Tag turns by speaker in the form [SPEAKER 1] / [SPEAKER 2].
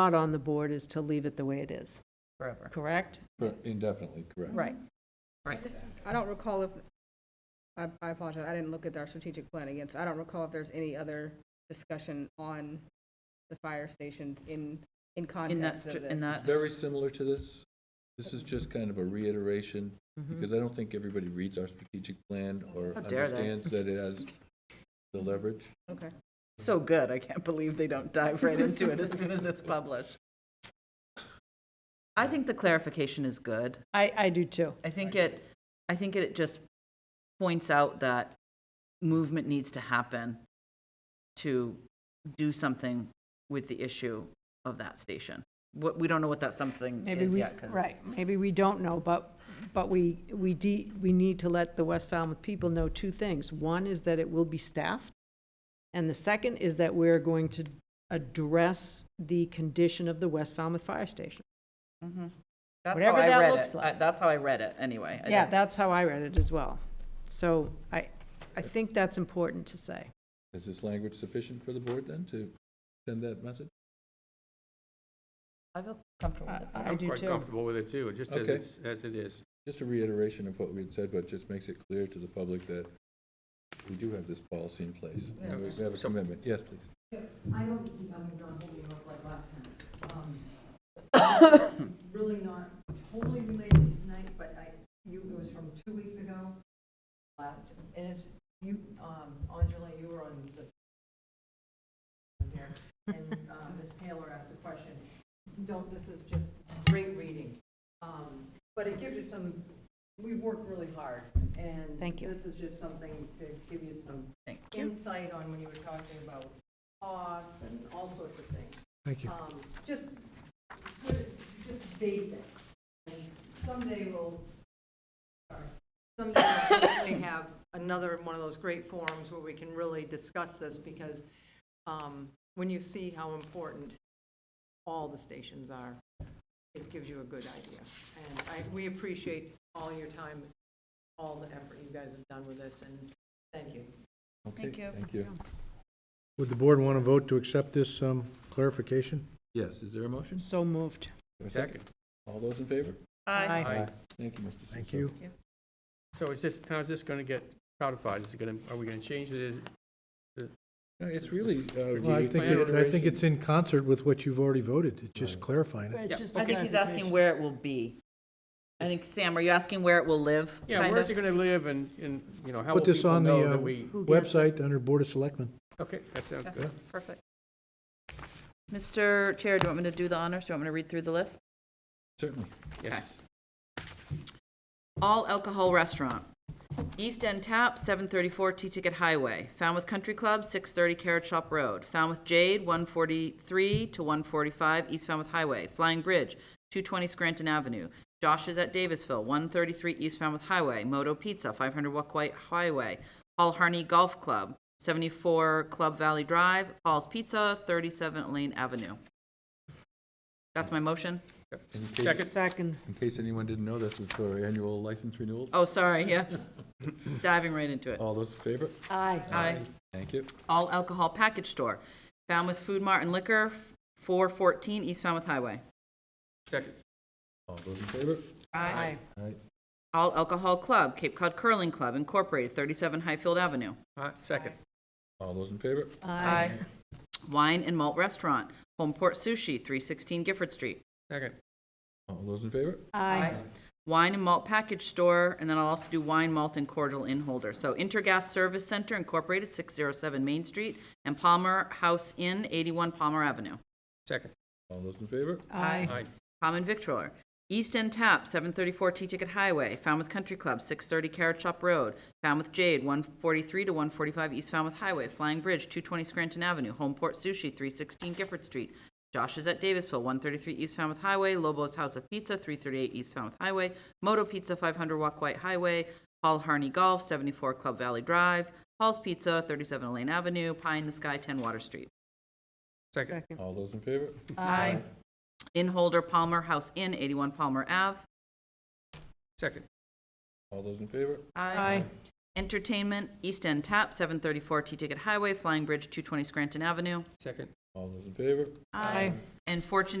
[SPEAKER 1] not on the board is to leave it the way it is,
[SPEAKER 2] forever.
[SPEAKER 1] correct?
[SPEAKER 3] Cor- Indefinitely, correct.
[SPEAKER 1] Right.
[SPEAKER 4] I don't recall if, I, I apologize, I didn't look at our strategic plan again, so I don't recall if there's any other discussion on the fire stations in,
[SPEAKER 2] In
[SPEAKER 4] in
[SPEAKER 2] that,
[SPEAKER 4] context
[SPEAKER 2] str-
[SPEAKER 4] of
[SPEAKER 2] in
[SPEAKER 4] this.
[SPEAKER 2] that,
[SPEAKER 3] Very similar to this. This is just kind of a reiteration, because I don't think everybody reads our strategic plan or
[SPEAKER 2] How dare they.
[SPEAKER 3] understands that it has the leverage.
[SPEAKER 4] Okay.
[SPEAKER 2] so good, I can't believe they don't dive right into it as soon as it's published. I think the clarification is good.
[SPEAKER 1] I, I do too.
[SPEAKER 2] I think it, I think it just points out that movement needs to happen to do something with the issue of that station. What, we don't know what that something
[SPEAKER 1] Maybe
[SPEAKER 2] is
[SPEAKER 1] we,
[SPEAKER 2] yet, 'cause-
[SPEAKER 1] right, maybe we don't know, but, but we, we de, we need to let the West Falmouth people know two things. One is that it will be staffed, and the second is that we're going to address the condition of the West Falmouth Fire Station.
[SPEAKER 2] That's how
[SPEAKER 1] Whatever
[SPEAKER 2] I
[SPEAKER 1] that
[SPEAKER 2] read
[SPEAKER 1] looks
[SPEAKER 2] it. I-
[SPEAKER 1] like.
[SPEAKER 2] That's how I read it, anyway. I
[SPEAKER 1] Yeah,
[SPEAKER 2] don't-
[SPEAKER 1] that's how I read it as well. So I, I think that's important to say.
[SPEAKER 3] Is this language sufficient for the board then to send that message?
[SPEAKER 2] I feel comfortable with that.
[SPEAKER 1] I do
[SPEAKER 5] I'm quite
[SPEAKER 1] too.
[SPEAKER 5] comfortable with it too, just as
[SPEAKER 3] Okay.
[SPEAKER 5] it's, as it is.
[SPEAKER 3] Just a reiteration of what we had said, but just makes it clear to the public that we do have this policy in place. and We have a commitment. Yes, please.
[SPEAKER 6] I don't think I'm not holding up like last time. Um, Really not totally related to tonight, but I, you, it was from two weeks ago. Uh, And it's, you, um, Angela, you were on the, there, and uh, Ms. Taylor asked a question. Don't, this is just great reading. Um, But it gives you some, we've worked really hard, and
[SPEAKER 1] Thank you.
[SPEAKER 6] this is just something to give you some
[SPEAKER 2] Thank
[SPEAKER 6] insight on when you were talking about costs and all sorts of things. Thank you. Just, just basic. And Someday we'll, sorry, someday we'll hopefully have another one of those great forums where we can really discuss this because um, when you see how important all the stations are, it gives you a good idea. And I, we appreciate all your time, all the effort you guys have done with this, and thank you.
[SPEAKER 3] Okay, Thank you.
[SPEAKER 7] Would the board want to vote to accept this um, clarification?
[SPEAKER 3] Yes, is there a motion?
[SPEAKER 1] So moved.
[SPEAKER 3] Or a
[SPEAKER 5] Second.
[SPEAKER 3] All those in favor?
[SPEAKER 1] Aye.
[SPEAKER 5] Aye.
[SPEAKER 3] Thank you, Mr.
[SPEAKER 7] Thank
[SPEAKER 3] Suso.
[SPEAKER 7] you.
[SPEAKER 5] So is this, how's this going to get codified? Is it going to, are we going to change it as,
[SPEAKER 3] No, It's really. uh,
[SPEAKER 7] Well, I
[SPEAKER 5] Strategic
[SPEAKER 7] think,
[SPEAKER 5] plan
[SPEAKER 7] it- I think
[SPEAKER 3] reiteration.
[SPEAKER 7] it's in concert with what you've already voted, it's just
[SPEAKER 3] Right.
[SPEAKER 7] clarifying it.
[SPEAKER 1] It's
[SPEAKER 5] Yeah.
[SPEAKER 1] just a
[SPEAKER 2] I think he's asking
[SPEAKER 1] clarification.
[SPEAKER 2] where it will be. I think, Sam, are you asking where it will live?
[SPEAKER 5] yeah,
[SPEAKER 2] kind
[SPEAKER 5] where's
[SPEAKER 2] of?
[SPEAKER 5] it going to live and, and, you know, how will
[SPEAKER 7] Put this
[SPEAKER 5] people
[SPEAKER 7] on
[SPEAKER 5] know
[SPEAKER 7] the uh,
[SPEAKER 5] that we?
[SPEAKER 7] website under Board of Selectmen.
[SPEAKER 5] Okay, that sounds
[SPEAKER 2] Okay,
[SPEAKER 5] good.
[SPEAKER 2] Perfect. Mr. Chair, do you want me to do the honors? Do you want me to read through the list?
[SPEAKER 3] Certainly.
[SPEAKER 5] Yes.
[SPEAKER 2] All alcohol restaurant. East End Tap, 734 T-Ticket Highway. Falmouth Country Club, 630 Carrot Shop Road. Falmouth Jade, 143 to 145 East Falmouth Highway. Flying Bridge, 220 Scranton Avenue. Josh is at Davisville, 133 East Falmouth Highway. Moto Pizza, 500 Wuckwhite Highway. Paul Harney Golf Club, 74 Club Valley Drive. Paul's Pizza, 37 Lane Avenue. That's my motion.
[SPEAKER 3] In case-
[SPEAKER 5] Second,
[SPEAKER 1] Second.
[SPEAKER 3] In case anyone didn't know, this is for annual license renewals.
[SPEAKER 2] Oh, sorry, yes. Diving right into it.
[SPEAKER 3] All those in favor?
[SPEAKER 1] Aye.
[SPEAKER 2] Aye.
[SPEAKER 3] Thank you.
[SPEAKER 2] all alcohol package store, Falmouth Food Mart and Liquor, 414 East Falmouth Highway.
[SPEAKER 5] second,
[SPEAKER 3] All those in favor?
[SPEAKER 1] Aye.
[SPEAKER 3] Aye.
[SPEAKER 2] All Alcohol Club, Cape Cod Curling Club Incorporated, 37 Highfield Avenue.
[SPEAKER 5] aye, second,
[SPEAKER 3] All those in favor?
[SPEAKER 2] Aye. Wine and Malt Restaurant, Homeport Sushi, 316 Gifford Street.
[SPEAKER 5] second,
[SPEAKER 3] All those in favor?
[SPEAKER 1] Aye.
[SPEAKER 2] Wine and Malt Package Store, and then I'll also do Wine, Malt, and Cordial in Holder. So Intergas Service Center Incorporated, 607 Main Street, and Palmer House Inn, 81 Palmer Avenue.
[SPEAKER 5] second,
[SPEAKER 3] All those in favor?
[SPEAKER 1] Aye.
[SPEAKER 5] aye,
[SPEAKER 2] Common Victualler. East End Tap, 734 T-Ticket Highway, Falmouth Country Club, 630 Carrot Shop Road, Falmouth Jade, 143 to 145 East Falmouth Highway, Flying Bridge, 220 Scranton Avenue, Homeport Sushi, 316 Gifford Street, Josh is at Davisville, 133 East Falmouth Highway, Lobo's House of Pizza, 338 East Falmouth Highway, Moto Pizza, 500 Walk White Highway, Paul Harney Golf, 74 Club Valley Drive, Paul's Pizza, 37 Elaine Avenue, Pie in the Sky, 10 Water Street.
[SPEAKER 5] second,
[SPEAKER 3] All those in favor?
[SPEAKER 1] Aye.
[SPEAKER 2] In Holder Palmer House Inn, 81 Palmer Ave.
[SPEAKER 5] second,
[SPEAKER 3] All those in favor?
[SPEAKER 1] Aye.
[SPEAKER 2] Entertainment, East End Tap, 734 T-Ticket Highway, Flying Bridge, 220 Scranton Avenue.
[SPEAKER 5] second,
[SPEAKER 8] All those in favor?
[SPEAKER 9] Aye.
[SPEAKER 3] And Fortune